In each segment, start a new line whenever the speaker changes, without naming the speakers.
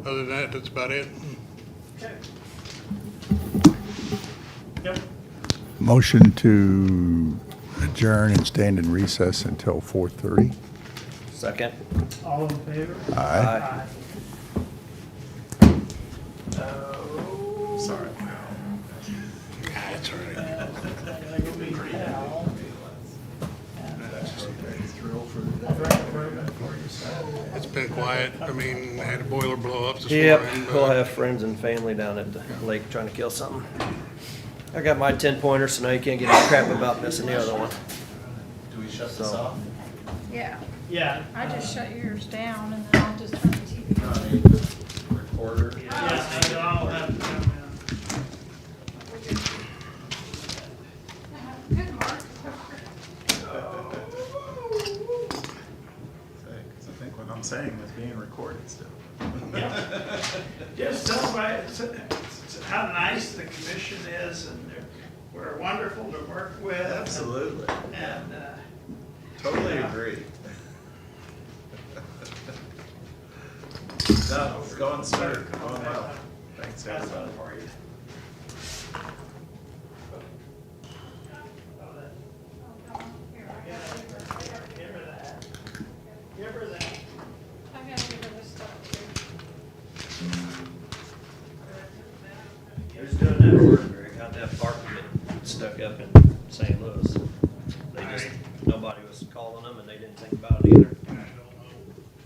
Other than that, that's about it.
Okay. Yep.
Motion to adjourn and stand in recess until 4:30.
Second.
All in favor?
Aye.
Oh.
Sorry.
That's all right.
I go meet Hal.
It's been quiet. I mean, had a boiler blow up this
Yep,
morning. but-
we'll have friends and family down at the lake trying to kill something. I got my ten pointer, so now you can't get any crap about missing the other one.
Do we shut
So-
this off?
Yeah,
Yeah.
I just shut yours down and then I'll just turn the TV.
No,
on.
I mean, the recorder?
Yeah, so I'll have to come down.
Good, Mark.
Because I think what I'm saying is being recorded still.
Just celebrate, s- s- how nice the commission is and they're, we're wonderful to work with.
Absolutely,
And, uh,
totally agree. No, it's going smooth, going well. Thanks,
that's all
everybody.
for you. Oh, that- Give her that. Give her that.
I gotta give her this stuff too.
Who's doing that work, Greg? How'd that bark get stuck up in St. Louis? They just, nobody was calling them and they didn't think about it either.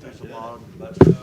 There's a log, but, uh,